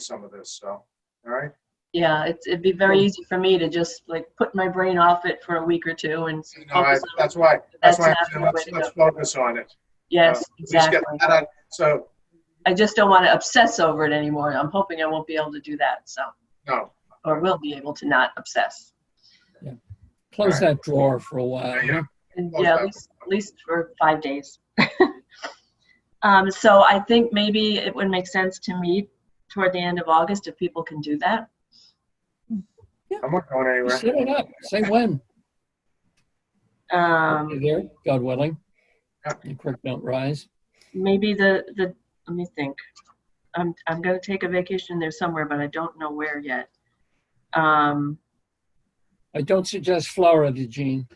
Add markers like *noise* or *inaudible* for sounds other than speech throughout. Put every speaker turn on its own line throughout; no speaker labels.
some of this, so, all right?
Yeah, it's, it'd be very easy for me to just like put my brain off it for a week or two and s-
You know, I-
focus on,
That's why, that's
That's
why, I'm
not
saying
the way
let's,
to
let's focus on it.
yes,
Let's just get
exactly.
that out. So,
I just don't want to obsess over it anymore. I'm hoping I won't be able to do that, so,
no,
or will be able to not obsess.
Close that drawer for a while.
yeah,
And
Close
yeah,
that.
at least, at least for five days. *laughs* Um, so I think maybe it would make sense to meet toward the end of August if people can do that.
I'm not going
Set it
anywhere.
up. Say when.
Um,
You there, God willing.
Yeah.
The creek don't rise.
maybe the, the, let me think. I'm, I'm gonna take a vacation there somewhere, but I don't know where yet. Um,
I don't suggest Florida, Gene.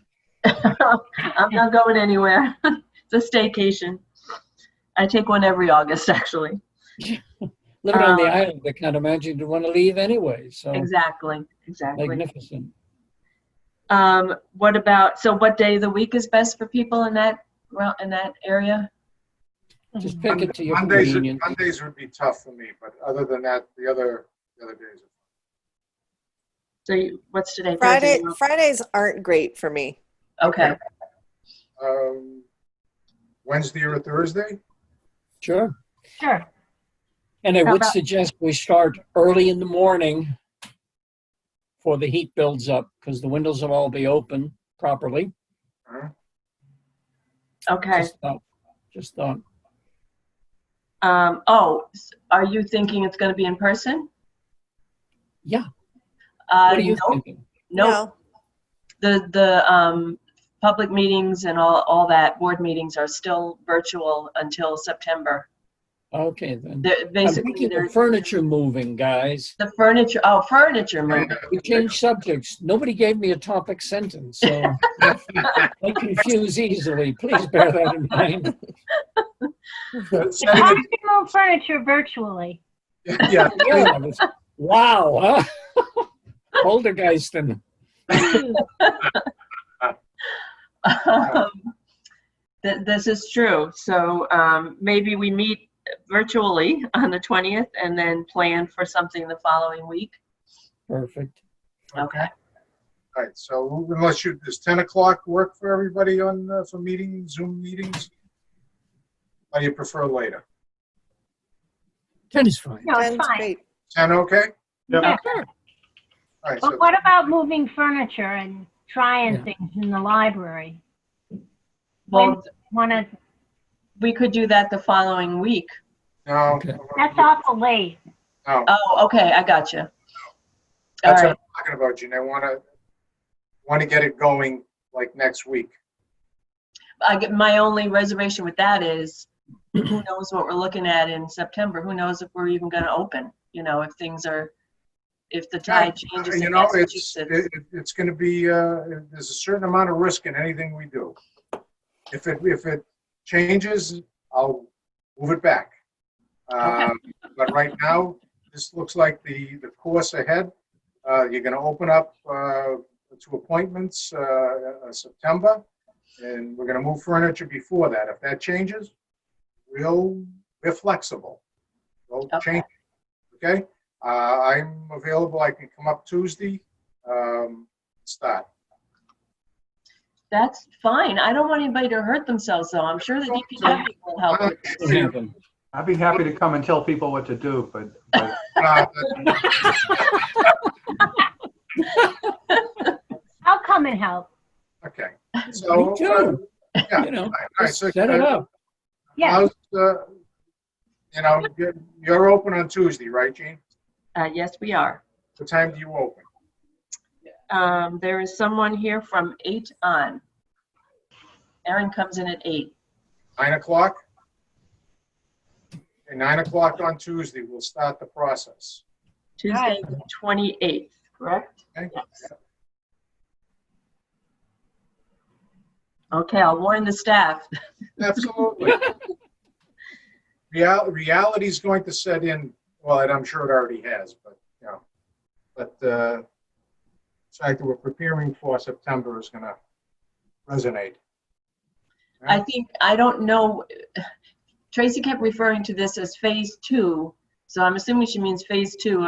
I'm not going anywhere. *laughs* It's a staycation. I take one every August, actually.
Living on the
Um,
island, I can't imagine you'd want to leave anyway. So
Exactly, exactly.
magnificent.
Um, what about, so what day of the week is best for people in that, well, in that area? Mhm.
Just pick it to your
Mondays,
convenience.
Mondays would be tough for me, but other than that, the other, the other days.
So you- what's today?
Friday
Thursday?
Fridays aren't great for me.
Okay,
Um, Wednesday or Thursday? *laughs*
Sure.
Sure.
And I
How
would
about-
suggest we start early in the morning before the heat builds up because the windows will all be open properly.
Huh?
okay.
Just thought, just thought.
Um, oh, s- are you thinking it's gonna be in person?
Yeah.
Uh,
What are you
no,
thinking?
no, the, the, um, public meetings and all, all that, board meetings are still virtual until September.
Okay, then.
They're
I'm
basically,
thinking
they're.
of furniture moving, guys.
The furniture, oh, furniture move.
We changed subjects. Nobody gave me a topic
*laughs*
sentence, so I confuse easily. Please bear that in mind.
So how do you move furniture virtually?
*laughs* Yeah,
Yeah, I was- Wow, huh? *laughs* Poltergeisting.
Um, *laughs* th- This is true. So um, maybe we meet virtually on the 20th and then plan for something the following week.
Perfect.
Okay.
all right, so unless you, does 10 o'clock work for everybody on, uh, for meetings, Zoom meetings? Or you prefer later?
Ten is fine.
No, it's
Ten's
fine.
great.
10, okay?
Yeah.
All right, so
But what about moving furniture and
Yeah.
trying things in the library?
Well,
Want to,
we could do that the following week.
No.
Okay.
that's awful late.
No,
Oh, okay, I got you. All
that's what I'm
right,
talking about, Gene. I want to, want to get it going like next week.
I get, my only reservation with that is, who knows what we're looking at in September? Who knows if we're even gonna open? You know, if things are, if the tide changes
You
in
know, it's,
Massachusetts.
it, it- it's going to be, uh, there's a certain amount of risk in anything we do. If it, if it changes, I'll move it back. Um, But right now, this looks like the, the course ahead. Uh, You're going to open up uh, to appointments uh, uh, September, and we're going to move furniture before that. If that changes, we'll, we're flexible. We'll
Okay.
change, it, okay? Uh, I'm available, I can come up Tuesday, um, start.
That's fine. I don't want anybody to hurt themselves, though. I'm sure the DPW will help
Uh,
with
What happened?
I'd be happy to come and tell people what to do, but, but
Uh,
I'll come and help.
Okay. So,
*laughs* Me
uh,
too.
Yeah.
You know,
all right,
just
so,
set it
uh,
up.
Yeah,
how's, uh, You know, you're- you're open on Tuesday, right, Gene?
Uh, yes, we are.
What time do you open?
Um, there is someone here from eight on. Erin comes in at eight.
Nine o'clock? At nine o'clock on Tuesday, we'll start the process.
Tuesday, the twenty-eighth, correct?
Okay.
Yes. Okay, I'll warn the staff.
Absolutely. Real, reality's going to set in, well, and I'm sure it already has, but, you know, but, uh, the fact that we're preparing for September is gonna resonate.
I think, I don't know, Tracy kept referring to this as phase two. So I'm assuming she means phase two